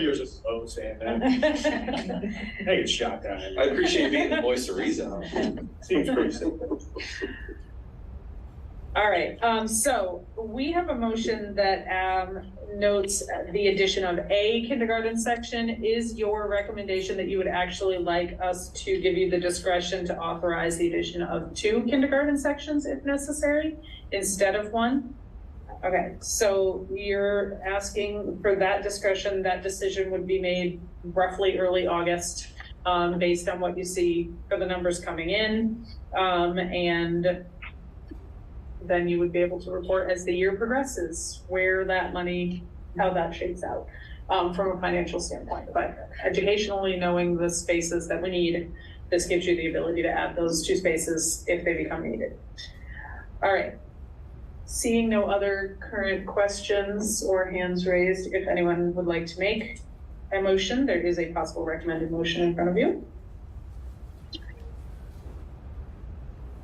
years of of saying that, I get shot down. every- I appreciate being the voice of reason. Seems pretty simple. All right, um, so we have a motion that, um, notes the addition of a kindergarten section. Is your recommendation that you would actually like us to give you the discretion to authorize the addition of two kindergarten sections if necessary instead of one? Okay, so you're asking for that discretion, that decision would be made roughly early August, um, based on what you see for the numbers coming in. Um, and then you would be able to report as the year progresses where that money, how that shakes out um, from a financial standpoint. But educationally, knowing the spaces that we need, this gives you the ability to add those two spaces if they become needed. All right. Seeing no other current questions or hands raised, if anyone would like to make a motion, there is a possible recommended motion in front of you.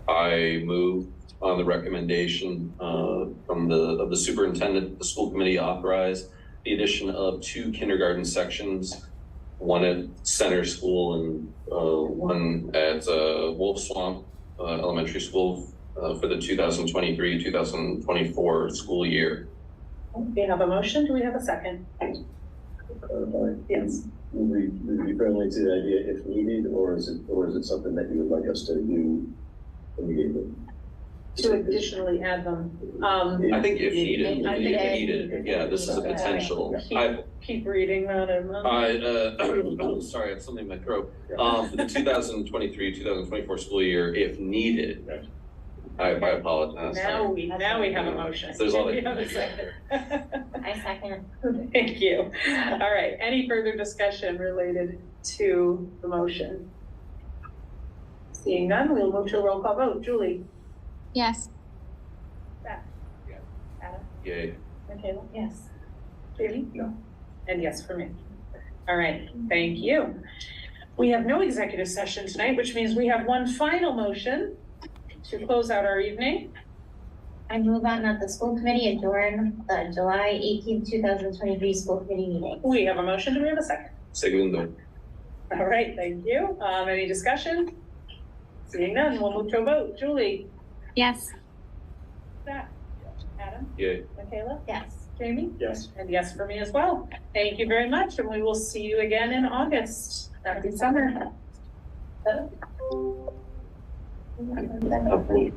I move on the recommendation uh, from the, of the superintendent, the school committee authorize the addition of two kindergarten sections, one at Center School and uh, one at uh, Wolf Swamp uh, Elementary School uh, for the 2023, 2024 school year. We have a motion. Do we have a second? Yes. We, we friendly to the idea if needed, or is it, or is it something that you would like us to do immediately? To additionally add them. Um, I think if needed, I think- if needed, yeah, this is a potential. I, Keep reading that in. I, uh, sorry, I have something in my throat. Um, for the two thousand twenty-three, two thousand twenty-four school year, if needed. I, I apologize. Now we, now we have a motion. There's all We have a that. second. I second. Thank you. All right, any further discussion related to the motion? Seeing none, we'll move to a roll call vote. Julie? Yes. Yay. Michaela? Yes. Jamie? No. And yes for me. All right, thank you. We have no executive session tonight, which means we have one final motion to close out our evening. I move on that the school committee adjourn the July eighteenth, two thousand twenty-three school committee meeting. We have a motion, do we have a second? Segundo. All right, thank you. Um, any discussion? Seeing none, we'll move to a vote. Julie? Yes. Zach? Adam? Yay. Michaela? Yes. Jamie? Yes. And yes for me as well. Thank you very much, and we will see you again in August. Happy summer. Definitely.